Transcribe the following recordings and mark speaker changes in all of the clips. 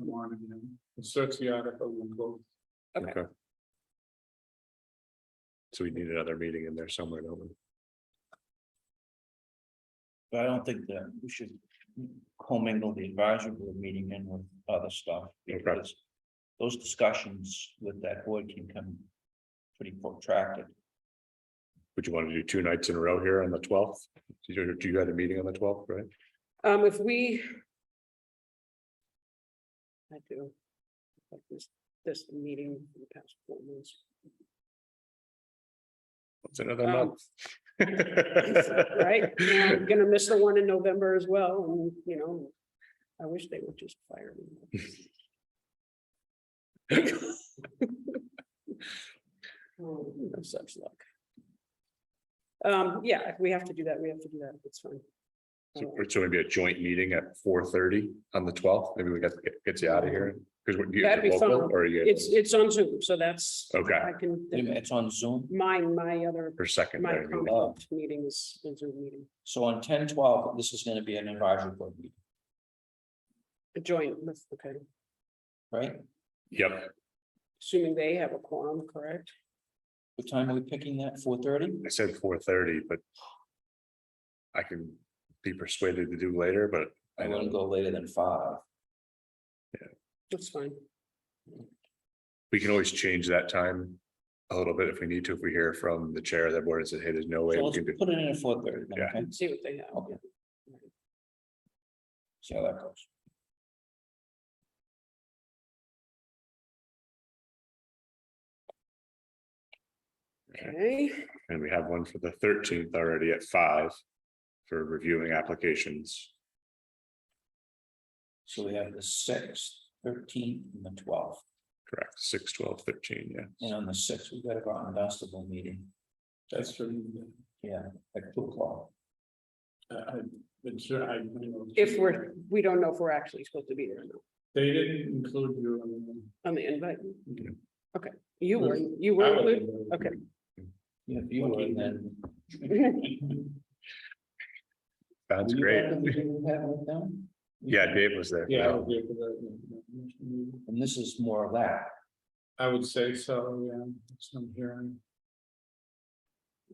Speaker 1: warrant, you know, search the article and go.
Speaker 2: Okay. So we need another meeting in there somewhere, don't we?
Speaker 3: But I don't think that we should commingle the advisory board meeting in with other stuff because. Those discussions with that board can come pretty protracted.
Speaker 2: Would you want to do two nights in a row here on the twelfth? Do you, do you have a meeting on the twelfth, right?
Speaker 4: Um, if we. I do. Like this, this meeting for the past four months.
Speaker 2: It's another
Speaker 4: Um,
Speaker 2: month.
Speaker 4: Right, and I'm gonna miss the one in November as well, and you know, I wish they would just fire me. Oh, No such luck. Um, yeah, if we have to do that, we have to do that, it's fine. Um,
Speaker 2: So we're- so maybe a joint meeting at four thirty on the twelfth, maybe we got, get- gets you out of here, because we're, you
Speaker 4: That'd be
Speaker 2: local
Speaker 4: fun.
Speaker 2: or are you?
Speaker 4: It's, it's on Zoom, so that's.
Speaker 2: Okay.
Speaker 4: I can,
Speaker 3: It's on Zoom.
Speaker 4: mine, my other,
Speaker 2: For
Speaker 4: my
Speaker 2: secondary, meeting.
Speaker 4: conflict meetings, is Zoom meeting,
Speaker 3: So on ten twelve, this is gonna be an advisory board meeting,
Speaker 4: a joint, with- okay,
Speaker 3: right?
Speaker 2: yep,
Speaker 4: assuming they have a quorum, correct?
Speaker 3: What time are we picking that? Four thirty?
Speaker 2: I said four thirty, but. I can be persuaded to do later, but I
Speaker 3: I wouldn't
Speaker 2: know
Speaker 3: go later than five.
Speaker 4: That's fine,
Speaker 2: we can always change that time. A little bit if we need to, if we hear from the chair of that board and says, hey, there's no way
Speaker 3: So
Speaker 2: we
Speaker 3: let's
Speaker 2: can do.
Speaker 3: put it in at four thirty.
Speaker 2: Yeah.
Speaker 4: see what they have.
Speaker 3: Okay. See how that goes.
Speaker 4: Okay,
Speaker 2: And we have one for the thirteenth already at five for reviewing applications.
Speaker 3: So we have the sixth, thirteenth, and the twelfth.
Speaker 2: Correct, six, twelve, thirteen, yeah.
Speaker 3: And on the sixth, we've got a Groton Dunstable meeting,
Speaker 1: That's true.
Speaker 3: yeah, at two o'clock.
Speaker 1: I, I've been sure, I, you know.
Speaker 4: if we're, we don't know if we're actually supposed to be there or not,
Speaker 1: They didn't include you. on
Speaker 4: on the invite,
Speaker 1: the-
Speaker 4: you were, you
Speaker 1: I
Speaker 4: were
Speaker 1: wasn't
Speaker 4: included,
Speaker 1: there.
Speaker 4: okay.
Speaker 3: Yeah, if you were then.
Speaker 2: Sounds
Speaker 3: Were you
Speaker 2: great.
Speaker 3: at the meeting we had with them?
Speaker 2: Yeah, Dave was there.
Speaker 1: Yeah. I was there for that.
Speaker 3: And this is more of that,
Speaker 1: I would say so, yeah, some hearing.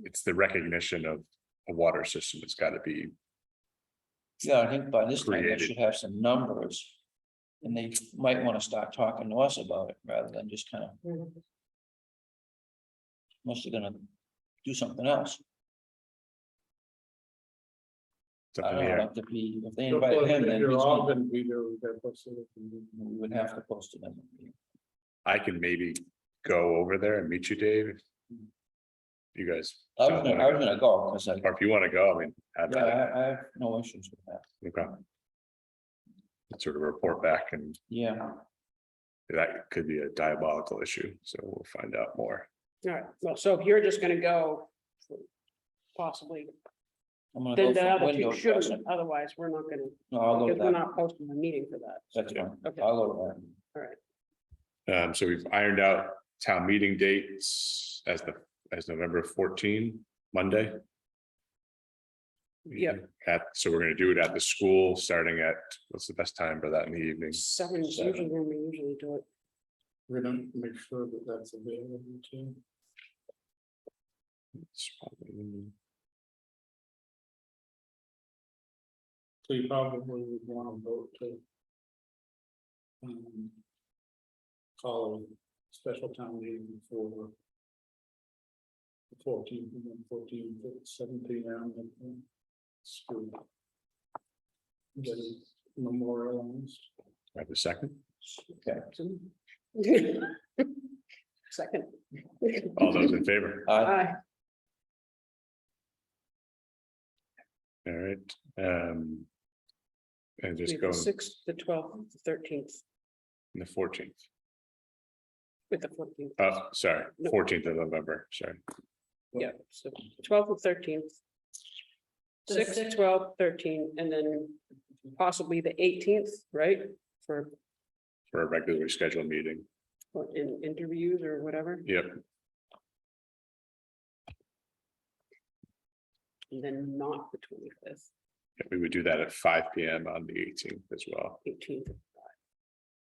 Speaker 2: It's the recognition of a water system. It's got to be,
Speaker 3: yeah, I think by this time they
Speaker 2: Created.
Speaker 3: should have some numbers. And they might want to start talking to us about it rather than just kind of, unless they're gonna do something else.
Speaker 2: it's
Speaker 3: I
Speaker 2: up in
Speaker 3: don't
Speaker 2: the
Speaker 3: know,
Speaker 2: air.
Speaker 3: if they, if they
Speaker 1: Of
Speaker 3: invite
Speaker 1: course,
Speaker 3: him,
Speaker 1: if
Speaker 3: then
Speaker 1: You're
Speaker 3: he's
Speaker 1: all
Speaker 3: gonna-
Speaker 1: gonna be there, we got posted it and then-
Speaker 3: we would have to post it. in the-
Speaker 2: I can maybe go over there and meet you, Dave. if You guys.
Speaker 3: I was
Speaker 2: don't
Speaker 3: gonna,
Speaker 2: wanna
Speaker 3: I was
Speaker 2: go.
Speaker 3: gonna go, because I,
Speaker 2: Or if you want to go, I mean. have at
Speaker 3: yeah,
Speaker 2: it.
Speaker 3: I, I have no issues with that,
Speaker 2: Okay. Sort of report back and
Speaker 3: yeah.
Speaker 2: that could be a diabolical issue. So we'll find out more.
Speaker 4: All right, well, so if you're just gonna go. Possibly,
Speaker 3: I'm gonna go
Speaker 4: then the other
Speaker 3: for
Speaker 4: two
Speaker 3: window
Speaker 4: shouldn't,
Speaker 3: dressing.
Speaker 4: otherwise we're not gonna,
Speaker 3: No, I'll go
Speaker 4: because
Speaker 3: with
Speaker 4: we're
Speaker 3: that.
Speaker 4: not posting a meeting for that.
Speaker 3: That's fine.
Speaker 4: Okay.
Speaker 3: I'll go with that.
Speaker 2: Um, so we've ironed out town meeting dates as the, as November fourteen, Monday.
Speaker 4: Yep.
Speaker 2: At, so we're gonna do it at the school, starting at, what's the best time for that in the evening?
Speaker 4: Seven is
Speaker 3: Seven.
Speaker 4: usually when we usually do it.
Speaker 1: We're gonna make sure that that's available too.
Speaker 2: It's probably-
Speaker 1: So you probably would wanna vote to. um, Call a special town meeting for. the 14th and then 14th at 7 p.m. and then School. Get it memorialized.
Speaker 2: Have a second?
Speaker 3: Okay.
Speaker 4: Second.
Speaker 2: All those in favor?
Speaker 3: I,
Speaker 4: Aye.
Speaker 2: All right, um. And
Speaker 4: We
Speaker 2: just
Speaker 4: have
Speaker 2: go
Speaker 4: the
Speaker 2: on
Speaker 4: Sixth, the twelfth, the thirteenth,
Speaker 2: the fourteenth,
Speaker 4: with the fourteenth,
Speaker 2: oh, sorry,
Speaker 4: No.
Speaker 2: fourteenth of November, sorry.
Speaker 4: yeah, so twelfth and thirteenth.
Speaker 5: The
Speaker 4: Six,
Speaker 5: sixth.
Speaker 4: twelve, thirteen, and then possibly the eighteenth, right, for
Speaker 2: For a regularly scheduled meeting,
Speaker 4: for in interviews or whatever,
Speaker 2: yep,
Speaker 4: and then not the twenty-fifth,
Speaker 2: we would do that at five P M on the eighteenth as well.
Speaker 4: eighteenth.